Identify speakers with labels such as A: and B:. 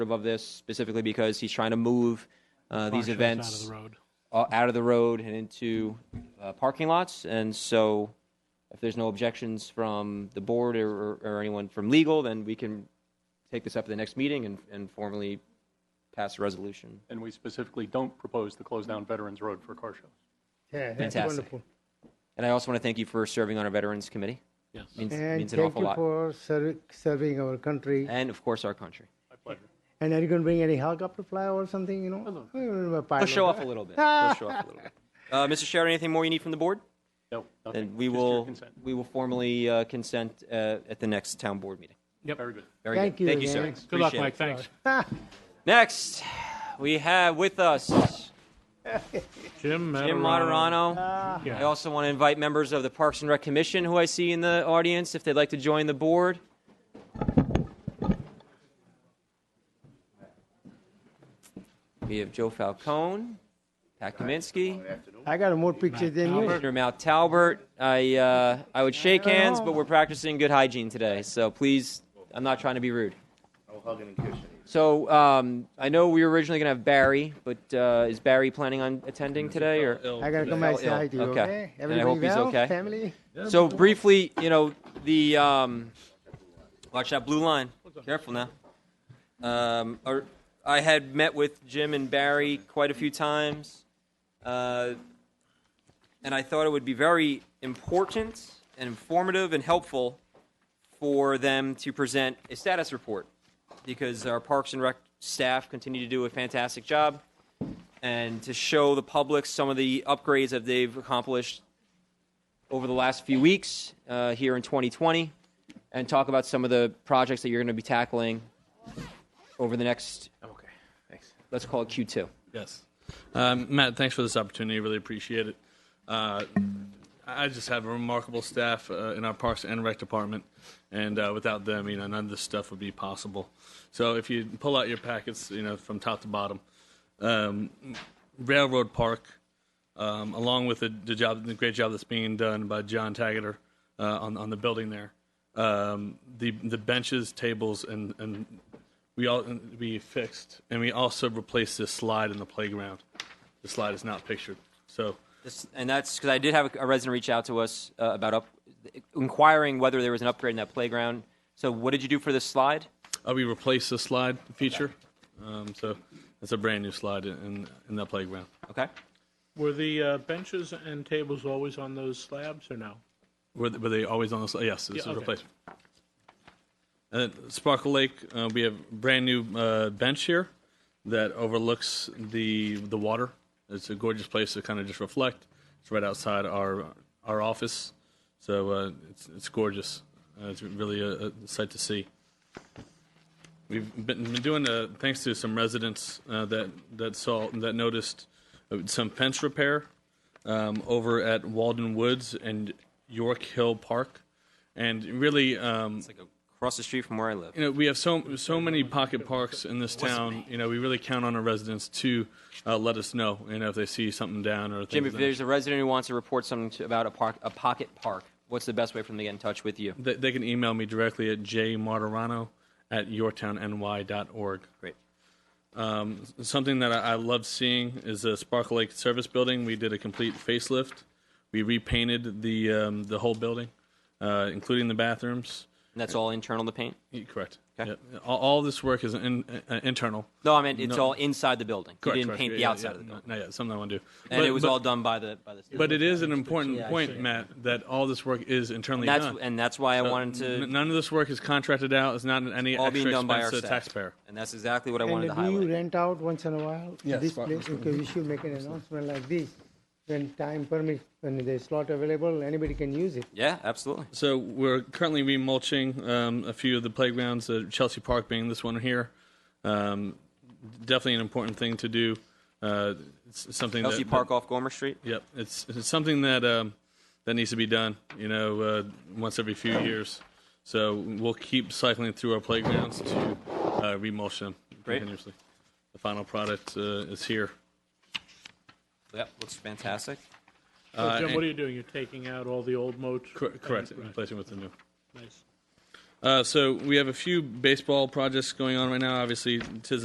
A: of this specifically because he's trying to move uh, these
B: Partial
A: events
B: side of the road.
A: uh, out of the road and into uh, parking lots. And so, if there's no objections from the board or, or, or anyone from legal, then we can take this up at the next meeting and, and formally pass a resolution.
C: And we specifically don't propose to close down Veterans Road for car shows.
D: Yeah, that's
A: Fantastic.
D: wonderful.
A: And I also want to thank you for serving on our Veterans Committee.
C: Yes.
A: Means,
D: And
A: means an
D: thank
A: awful
D: you
A: lot. Eh?
D: for serv- serving our country.
A: And of course, our country.
C: My pleasure.
D: And are you going to bring any helicopter fly or something, you know?
A: Let's
D: Let's
A: show off a little bit. Let's show off a little bit. Uh, Mr. Sherrod, anything more you need from the board?
C: No, nothing.
A: Then we
C: Just your
A: will,
C: consent.
A: we will formally uh, consent uh, at the next town board meeting.
C: Very good.
A: Very
D: Thank
A: good.
D: you
A: Thank you, sir.
D: again.
B: Good luck,
A: Appreciate it.
B: Mike. Thanks.
A: Next, we have with us
B: Jim
A: Jim Moderano.
B: Materano. Ah. Yeah.
A: I also want to invite members of the Parks and Rec Commission who I see in the audience if they'd like to join the board. We have Joe Falcone, Pat Kaminsky,
D: I got more pictures than you.
A: Commissioner Mal Talbert. I, uh, I would shake hands, but we're practicing good hygiene today, so please, I'm not trying to be rude. So um, I know we were originally going to have Barry, but uh, is Barry planning on attending today? Or
D: I got to come
A: Ill,
D: outside, you
A: okay.
D: okay?
A: And I hope
D: Everybody
A: he's
D: well?
A: okay.
D: Family?
A: So briefly, you know, the um, watch that blue line. Careful now. Um, or- I had met with Jim and Barry quite a few times, uh, and I thought it would be very important and informative and helpful for them to present a status report because our Parks and Rec staff continue to do a fantastic job and to show the public some of the upgrades that they've accomplished over the last few weeks uh, here in 2020 and talk about some of the projects that you're going to be tackling over the next,
E: Okay, thanks.
A: let's call it Q2.
E: Yes. Um, Matt, thanks for this opportunity. Really appreciate it. Uh, I just have a remarkable staff uh, in our Parks and Rec department, and uh, without them, you know, none of this stuff would be possible. So if you pull out your packets, you know, from top to bottom, um, Railroad Park, um, along with the, the job, the great job that's being done by John Taggart uh, on on the building there, um, the the benches, tables, and and we all we fixed, and we also replaced this slide in the playground. The slide is not pictured, so.
A: This, and that's because I did have a resident reach out to us uh, about up, inquiring whether there was an upgrade in that playground. So, what did you do for this slide?
E: Uh, we replaced the slide feature, um, so it's a brand new slide in in that playground.
A: Okay.
B: Were the uh, benches and tables always on those slabs or no?
E: Were, were they always on the slide? Yes, this
B: Yeah,
E: is a
B: okay.
E: replacement. And then Sparkle Lake, uh, we have brand new uh, bench here that overlooks the the water. It's a gorgeous place to kind of just reflect. It's right outside our our office, so uh, it's it's gorgeous. Uh, it's really a, a sight to see. We've been, been doing uh, thanks to some residents uh, that that saw that noticed uh, some fence repair um, over at Walden Woods and York Hill Park, and really, um,
A: Across the street from where I live.
E: you know, we have so so many pocket parks in this town. You know, we really count on our residents to uh, let us know, you know, if they see something down or
A: Jim,
E: things
A: if
E: down.
A: there's a resident who wants to report something to, about a, park, a pocket park, what's the best way for them to get in touch with you?
E: They, they can email me directly at jmartirano at yourtownny.org.
A: Great.
E: Something that I, I love seeing is the Sparkle Lake Service Building. We did a complete facelift. We repainted the um, the whole building, uh, including the bathrooms.
A: And that's all internal to paint?
E: Yeah, Correct.
A: Okay.
E: Yeah. All, all this work is in, uh, internal.
A: No, I mean, it's
E: No.
A: all inside the building.
E: Correct,
A: you didn't
E: correct.
A: paint
E: Yeah,
A: the
E: yeah,
A: outside
E: yeah.
A: of the building.
E: No, yeah, something I want to do.
A: And
E: But-
A: it was
E: but-
A: all done by the, by the
E: But it is an important point, Matt, that all this work is internally
A: And that's,
E: done.
A: and that's why I wanted
E: N-
A: to,
E: None of this work is contracted out. It's not any
A: all
E: extra
A: being done by
E: expense
A: our
E: to the
A: staff.
E: taxpayer.
A: And that's exactly what I wanted to
D: And do you
A: highlight.
D: rent out once in a while?
E: Yes,
D: This
E: but-
D: place, because we should make an announcement like this, when time permits, when there's slot available, anybody can use it.
A: Yeah, absolutely.
E: So we're currently remulching um, a few of the playgrounds, uh, Chelsea Park being this one here. Um, definitely an important thing to do. Uh, it's something
A: Chelsea
E: that,
A: Park off Gomer Street.
E: Yep, it's, it's something that um, that needs to be done. You know, uh, once every few years. So we'll keep cycling through our playgrounds to uh, remulch them
A: Great.
E: continuously. The final product uh, is here.
A: Yep, looks fantastic.
B: So, Jim,
E: Uh, and-
B: what are you doing? You're taking out all the old moats?
E: Cor- correct,
B: Right,
E: replacing with the new.
B: Nice.
E: Uh, so we have a few baseball projects going on right now. Obviously, tis